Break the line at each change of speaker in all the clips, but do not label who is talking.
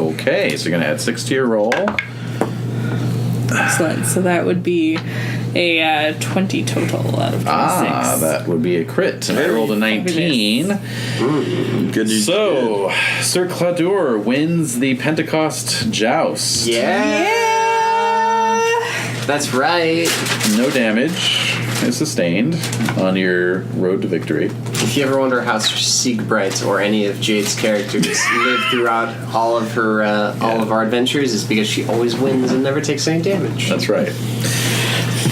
Okay, so you're gonna add six to your roll.
Excellent. So that would be a uh, 20 total out of 26.
Ah, that would be a crit. And I
Very
rolled a 19.
Good.
So, Sir Cladur wins the Pentecost Joust.
yeah. That's right.
No damage is sustained on your road to victory.
If you ever wonder how Siegbright or any of Jade's characters live throughout all of her uh, all of our adventures, is because she always wins and never takes any damage.
That's right.
She's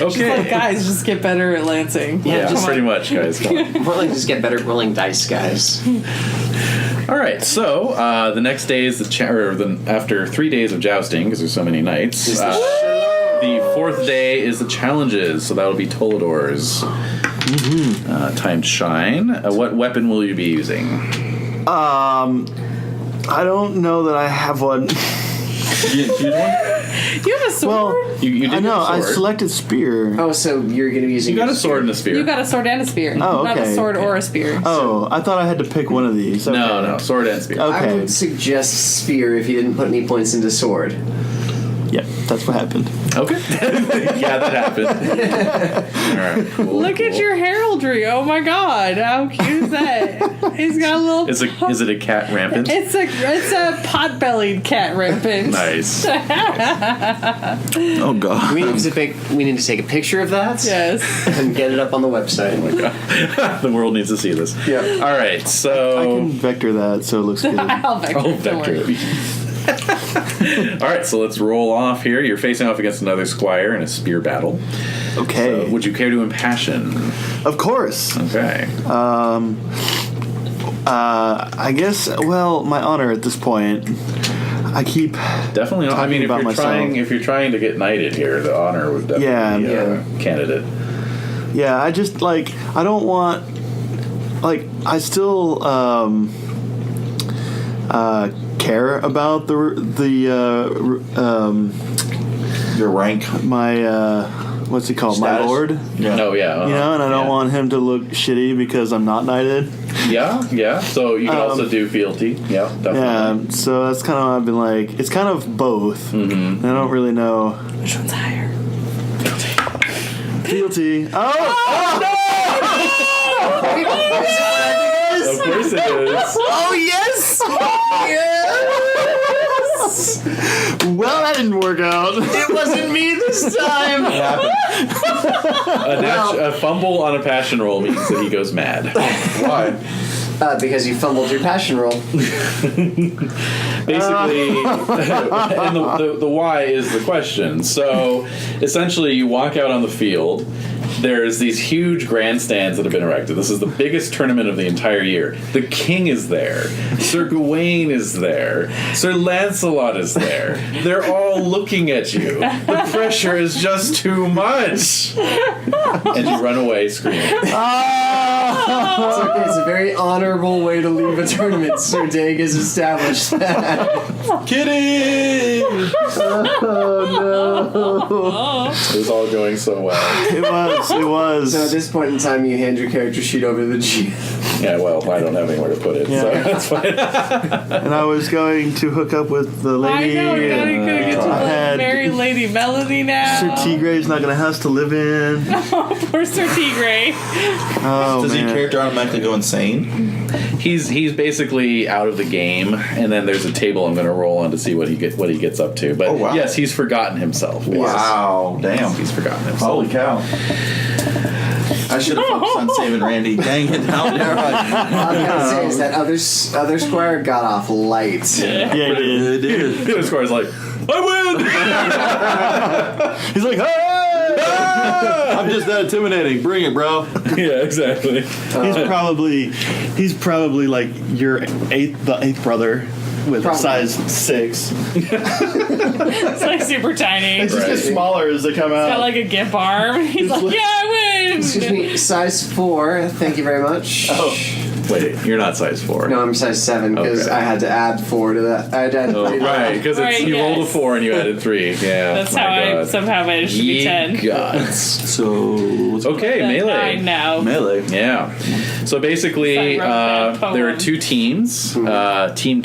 like,
okay.
guys, just get better at lancing.
Yeah,
Yeah,
just
pretty much, guys. Come on.
More like just get better at rolling dice, guys.
All right, so uh, the next day is the cha- or the, after three days of jousting because there's so many nights.
Is the
Uh, the fourth day is the challenges, so that'll be Tolador's uh, time to shine. Uh, what weapon will you be using?
Um, I don't know that I have one.
You have a sword?
Well,
You, you did
I know
get
I
a sword.
selected spear.
Oh, so you're going to be using
you got
your
a sword and a spear.
you got a sword and a spear.
Oh,
Not a
okay.
sword or a spear.
Oh, I thought I had to pick one of these. Okay.
no, no, sword and spear.
Okay.
I would suggest spear if you didn't put any points into sword.
Yeah, that's what happened.
Okay. yeah, that happened. All right. cool,
Look at
cool.
your heraldry. Oh my god. How cute is that? He's got a little.
Is it is it a cat rampant?
It's a it's a pot-bellied cat rampant.
nice.
Oh god.
We need to take we need to take a picture of that
Yes.
and get it up on the website.
the world needs to see this.
Yeah.
All right. So
I can vector that so it looks good.
I'll vector.
Oh,
Don't worry.
vector. All right, so let's roll off here. You're facing off against another squire in a spear battle. Uh,
Okay.
would you care to impassion?
of course.
Okay.
Uh, I guess. Well, my honor at this point. I keep.
Definitely. Not, I mean, if
about
you're
myself.
trying, if you're trying to get knighted here, the honor would definitely
Yeah,
be a
yeah.
candidate.
Yeah, I just like. I don't want. Like, I still um, uh, care about the r- the uh, r- um,
Your rank.
my uh, what's he called? My
Status.
lord.
Yeah.
No, yeah, uh-huh.
You know, and I don't
yeah.
want him to look shitty because I'm not knighted.
Yeah, yeah. So you can
Um,
also do fealty. Yeah, definitely.
Yeah, so that's kind of I've been like. It's kind of both. Mm-hmm. I don't really know.
Which one's higher?
Fealty. Oh,
Of course it is.
oh yes! Well, that didn't work out.
it wasn't me this time.
A, nat- a fumble on a passion roll means that he goes mad.
Why?
Uh, because you fumbled your passion roll.
basically and the, the, the why is the question so essentially you walk out on the field there's these huge grandstands that have been erected this is the biggest tournament of the entire year the king is there sir gawain is there sir lancelot is there they're all looking at you the pressure is just too much and you run away screaming
It's, okay, it's a very honorable way to leave a tournament. Sir Dag has established that.
kidding it was all going so well
It was. It
So at
was.
this point in time, you hand your character sheet over to the GM.
Yeah, well, I don't have anywhere to put it, so
Yeah.
that's fine.
And I was going to hook up with the
I
lady.
know. You're not
and
gonna get to
I
let
had-
marry Lady Melody now.
Sir Tigray's not gonna house to live in.
Poor Sir Tigray.
Oh
Does your
man.
character automatically go insane?
He's he's basically out of the game, and then there's a table I'm going to roll on to see what he get what he gets up to. But
Oh, wow.
yes, he's forgotten himself.
Wow.
Yes,
Oh, Damn.
he's forgotten himself.
Holy cow. Oh. I should have focused on saving Randy. Dang it. How dare I?
All I'm gonna say is that other s- other squire got off light.
Yeah, he did.
It is.
The other squire's like, I
He's like, hey!
I'm just that intimidating. Bring it, bro.
win. yeah, exactly.
He's probably, he's probably like your eighth, the eighth brother with
Probably.
size six.
It's like super tiny.
It
He's
just gets
Right.
smaller as they come
got
out.
like a gimp arm. He's like,
like-
yeah, I
Excuse
Oh
win.
me, size four. Thank you very much.
Wait, you're not size four.
No, I'm size seven because
Oh. Okay.
I had to add four to that. I had to add
Oh,
three to
right, because
Right,
you rolled a
yes.
four and you added three. Yeah,
That's
my
how I
God.
somehow managed to be
Ye
ten.
gods.
So, what's
Okay, melee.
I know.
melee?
uh, Yeah. So basically,
Sorry, wrote that
uh, there are
poem.
two teams. Uh, team